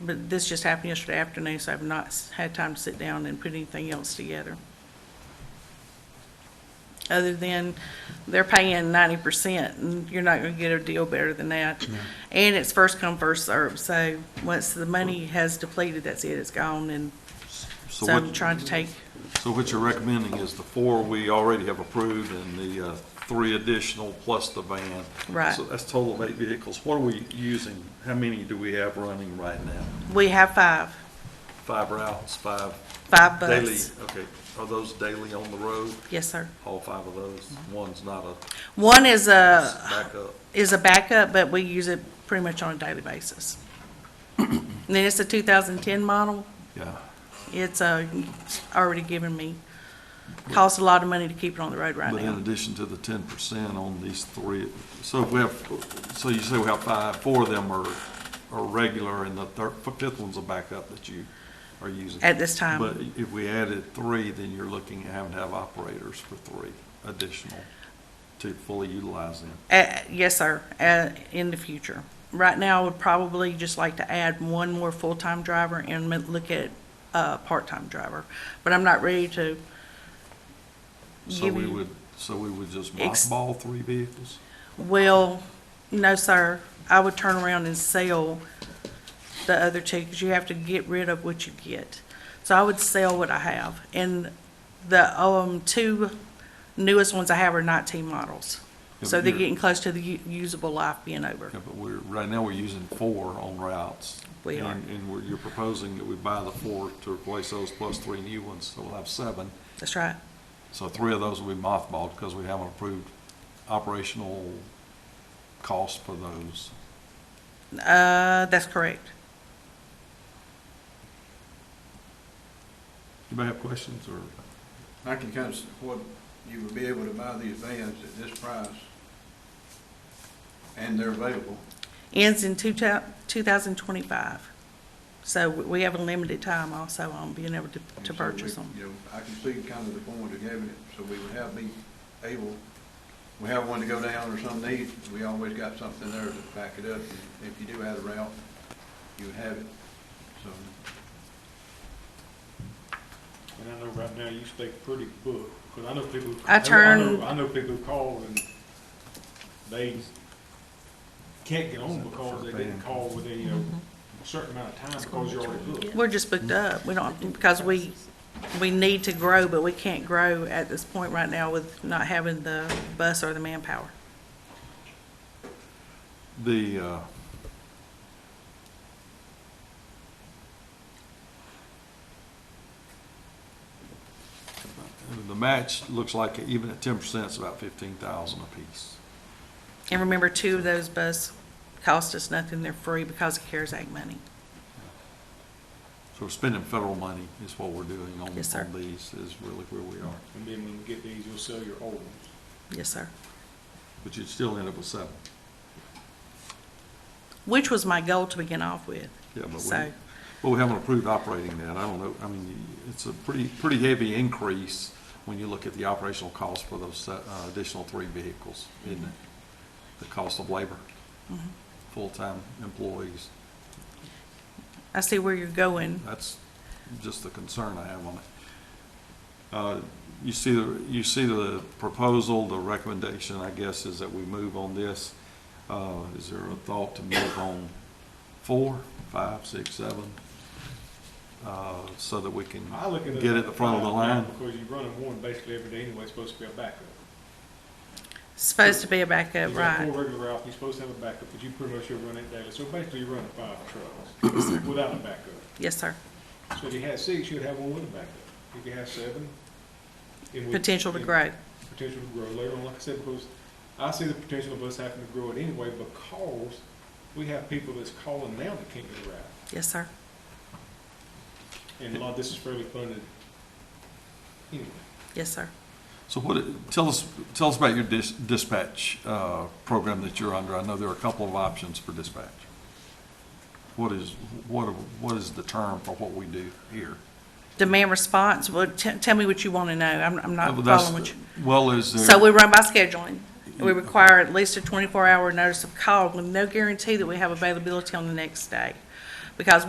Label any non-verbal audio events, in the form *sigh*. But this just happened yesterday afternoon, so I've not s- had time to sit down and put anything else together. Other than they're paying ninety percent, and you're not gonna get a deal better than that. And it's first come, first served, so once the money has depleted, that's it, it's gone, and So so I'm what, trying to take, so what you're recommending is the four we already have approved and the uh, three additional plus the van. Right. So that's total of eight vehicles. What are we using? How many do we have running right now? we have five, Five routes, five five daily? buses. Okay, are those daily on the road? Yes, sir. All five of those? Mm-hmm. One's not a One is a, backup? is a backup, but we use it pretty much on a daily basis. And then it's a 2010 model. Yeah. It's uh, already given me, costs a lot of money to keep it on the road right But in now. addition to the ten percent on these three, so if we have, so you say we have five, four of them are, are regular, and the third, fifth one's a backup that you are using. At this time. But if we added three, then you're looking at having to have operators for three additional to fully utilize them. Uh, Yes, sir, uh, in the future. Right now, I would probably just like to add one more full-time driver and m- look at a part-time driver. But I'm not ready to So give we you- would, so we would just Ex- mothball three vehicles? Well, no, sir. I would turn around and sell the other two, because you have to get rid of what you get. So I would sell what I have. And the, um, two newest ones I have are nineteen models. Yeah, So but they're you're- getting close to the u- usable life being over. Yeah, but we're, right now, we're using four on routes. We are. And, and we're, you're proposing that we buy the four to replace those plus three new ones, so we'll have seven. That's right. So three of those will be mothballed because we haven't approved operational cost for those. Uh, that's correct. Anybody have questions or? I can kind of, s- what, you would be able to buy these vans at this price, and they're available. Ends in two thou- two thousand twenty-five. So we we have a limited time also on being able to, And to so we- purchase them. You know, I can see kind of the point of having it, so we would have, be able, we have one to go down or some need, we always got something there to back it up. And If you do add a route, you would have it, so. And I know right now you stay pretty booked, because I know people. I know- turn- know- I know people who call and they can't get on because they didn't call within, you know, Mm-hmm. a uh, certain amount of time because you're already booked. We're just booked up. We don't, because we, we need to grow, but we can't grow at this point right now with not having the bus or the manpower. The, uh, the match looks like even at ten percent, it's about fifteen thousand apiece. And remember, two of those bus cost us nothing. They're free because of CARES Act money. So we're spending federal money is what we're doing on, on Yes, sir. these is really where we are. And then when you get these, you'll sell your old ones. Yes, sir. But you'd still end up with seven. Which was my goal to begin off with. Yeah, but we, So- well, we haven't approved operating that. I don't know, I mean, it's a pretty, pretty heavy increase when you look at the operational cost for those se- uh, additional three vehicles, isn't it? The cost of labor, full-time employees. I see where you're going. That's just the concern I have on it. Uh, You see, the you see the proposal, the recommendation, I guess, is that we move on this. Uh, Is there a thought to move on four, five, six, seven? uh, So that we can I look at it. get at the front of the line? Because you're running one basically every day anyway, it's supposed to be a backup. Supposed to be a backup, You got right? four regular routes, you're supposed to have a backup, but you pretty much you're running it daily. So basically you're running five trucks *coughs* without a backup. Yes, sir. So if you had six, you'd have one with a backup. If you had seven. it would- Potential to it- grow. Potential to grow later on, like I said, because I see the potential of us having to grow it anyway because we have people that's calling now that can't get a ride. Yes, sir. And a lot of this is fairly funded anyway. Yes, sir. So what, it- tell us, tell us about your dis- dispatch uh, program that you're under. I know there are a couple of options for dispatch. What is, what, what is the term for what we do here? Demand response, well, te- tell me what you want to know. I'm, I'm not Well, that's- following what you. Well, is there? So we run by scheduling. We require at least a twenty-four hour notice of call with no guarantee that we have availability on the next day. Because